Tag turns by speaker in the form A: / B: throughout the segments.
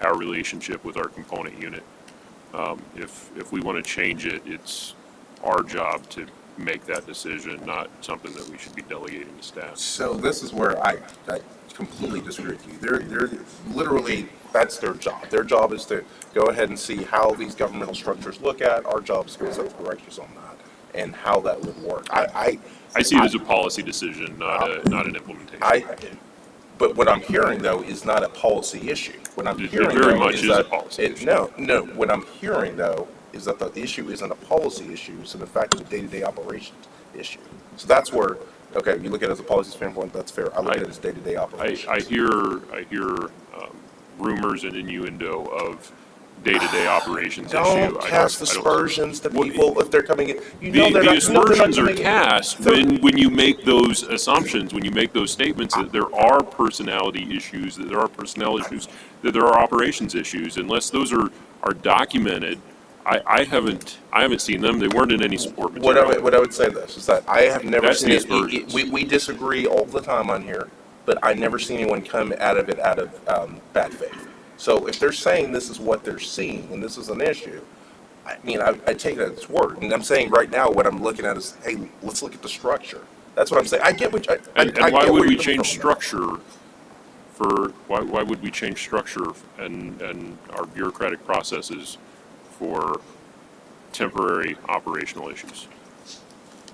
A: our relationship with our component unit. Um, If, if we want to change it, it's our job to make that decision, not something that we should be delegating to staff.
B: So this is where I, I completely disagree with you. They're, they're literally, that's their job. Their job is to go ahead and see how these governmental structures look at. Our job is to go set corrections on that and how that would work. I, I.
A: I see it as a policy decision, not a, not an implementation.
B: I, but what I'm hearing though is not a policy issue. What I'm
A: It
B: hearing
A: very
B: though
A: much
B: is
A: is a
B: that-
A: policy
B: it-
A: issue.
B: No, no, what I'm hearing though is that the issue isn't a policy issue, it's in fact a day-to-day operations issue. So that's where, okay, you look at it as a policy standpoint, that's fair. I look at it as day-to-day
A: I,
B: operations.
A: I hear, I hear um, rumors and innuendo of day-to-day operations issue.
B: Don't
A: I
B: cast
A: I don't-
B: aspersions to
A: Well,
B: people if they're coming in. You know
A: The,
B: they're
A: the
B: not- no, they're not
A: aspersions are
B: coming in.
A: cast
B: They're-
A: when, when you make those assumptions, when you make those statements that there are personality issues, that there are personnel issues, that there are operations issues, unless those are, are documented, I, I haven't, I haven't seen them, they weren't in any support
B: What I,
A: material.
B: would- what I would say this is that I have never
A: That's
B: seen,
A: the
B: it- it-
A: aspersions.
B: we, we disagree all the time on here, but I never seen anyone come out of it out of, um, bad faith. So if they're saying this is what they're seeing and this is an issue, I mean, I, I take it at its word. And I'm saying right now, what I'm looking at is, hey, let's look at the structure. That's what I'm saying. I get what, you- I, I I
A: And,
B: get
A: and why
B: where
A: would we
B: you're coming
A: change
B: from on that.
A: structure for, why, why would we change structure and, and our bureaucratic processes for temporary operational issues?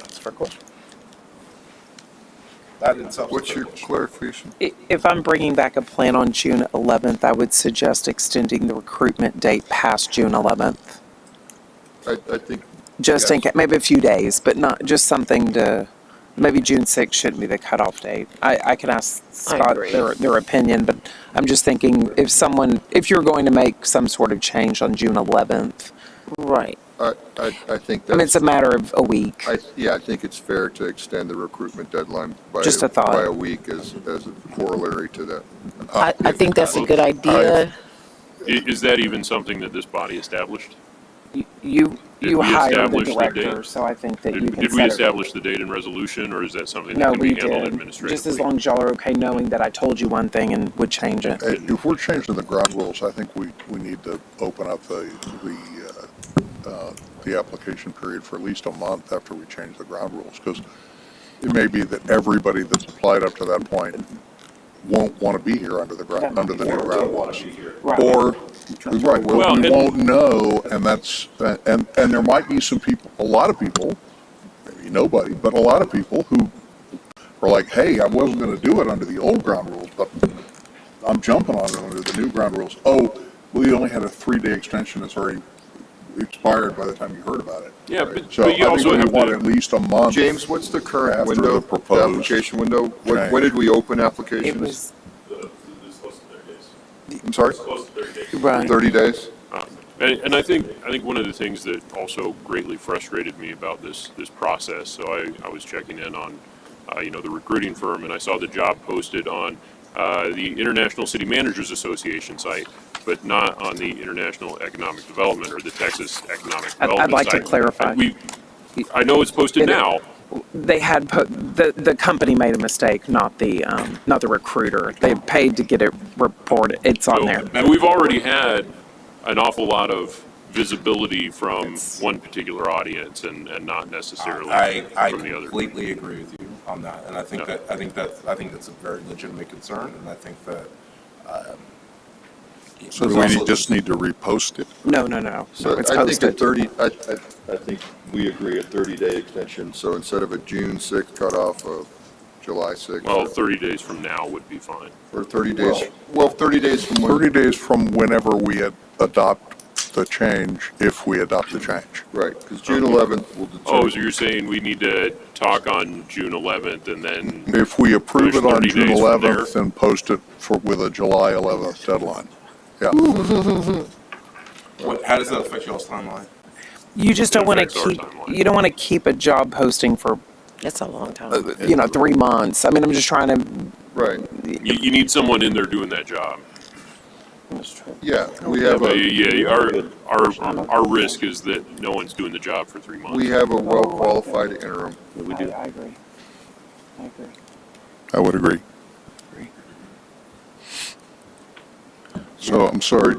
B: That's a fair question. That in itself is a
C: What's
B: fair
C: your
B: question.
C: clarification?
D: I- If I'm bringing back a plan on June 11th, I would suggest extending the recruitment date past June 11th.
C: I, I think,
D: Just in
C: Yes.
D: case, maybe a few days, but not, just something to, maybe June 6th shouldn't be the cutoff date. I, I can ask Scott
E: agree.
D: their, their opinion, but I'm just thinking if someone, if you're going to make some sort of change on June 11th,
E: Right.
C: I, I, I think
D: I mean, it's
C: that's,
D: a matter of a week.
C: I, yeah, I think it's fair to extend the recruitment deadline by.
D: Just a thought.
C: By a week as, as a corollary to that.
E: I, I think that's a good idea.
A: I- is that even something that this body established?
D: You,
A: Did
D: you
A: we
D: hire the
A: establish the date?
D: director, so I think that you
A: Did,
D: can
A: did we
D: set a-
A: establish the date and resolution, or is that something
D: No,
A: that can
D: we
A: be handled
D: did. Just as
A: administratively?
D: long as y'all are okay knowing that I told you one thing and would change it.
C: Uh, If we're changing the ground rules, I think we, we need to open up the, the, uh, uh, the application period for at least a month after we change the ground rules, because it may be that everybody that's applied up to that point won't want to be here under the ground, under the new ground rules.
D: Right.
C: Or, right,
A: Well,
C: well, we
A: and-
C: won't know, and that's, and, and there might be some people, a lot of people, maybe nobody, but a lot of people who are like, hey, I wasn't gonna do it under the old ground rules, but I'm jumping on it under the new ground rules. Oh, well, you only had a three-day extension, it's already expired by the time you heard about it.
A: Yeah, but-
C: So
A: but you
C: I think
A: also
C: we
A: have
C: want
A: to-
C: at least a month.
F: James, what's the current
C: After
F: window,
C: the
F: the
C: proposed
F: application window? What,
C: change.
F: when did we open
D: It
F: applications?
D: was,
A: uh,
F: I'm sorry,
D: right.
F: thirty days?
A: And, and I think, I think one of the things that also greatly frustrated me about this, this process, so I, I was checking in on, uh, you know, the recruiting firm, and I saw the job posted on, uh, the International City Managers Association site, but not on the International Economic Development or the Texas Economic
D: I'd- I'd
A: Development site.
D: like to clarify.
A: We, I know it's posted
D: It-
A: now,
D: They had, put- the, the company made a mistake, not the, um, not the recruiter. They paid to get it reported. It's on there.
A: And we've already had an awful lot of visibility from one particular audience and, and not necessarily
B: I, I
A: from the other.
B: completely agree with you on that, and I think
A: Yeah.
B: that, I think that, I think that's a very legitimate concern, and I think that, um. it
C: So
B: was
C: do we
B: also-
C: need- just need to repost it?
D: No, no, no. No,
F: So
D: It's
F: I think a
D: posted.
F: thirty, I, I, I think we agree a thirty-day extension, so instead of a June sixth cutoff of July sixth.
A: Well, 30 days from now would be fine.
F: Or thirty days, well, thirty days from when.
C: 30 days from whenever we ad- adopt the change, if we adopt the change.
F: Right, because June eleventh will
A: Oh, so
F: determine.
A: you're saying we need to talk on June 11th and then,
C: If we approve
A: There's
C: it on
A: 30
C: June
A: days from there.
C: 11th, then post it for, with a July 11th deadline. Yeah,
B: What, how does that affect y'all's timeline?
D: You just don't want to
A: affects our
D: keep,
A: timeline.
D: you don't want to keep a job posting for, uh,
E: That's a long time.
D: you know, three months. I mean, I'm just trying to,
F: Right,
A: you, you need someone in there doing that job.
F: yeah, we have
A: But
F: a,
A: yeah, our, our, our risk is that no one's doing the job for three
F: we
A: months.
F: have a well-qualified interim.
D: I I agree. I agree.
C: I would agree. So I'm sorry,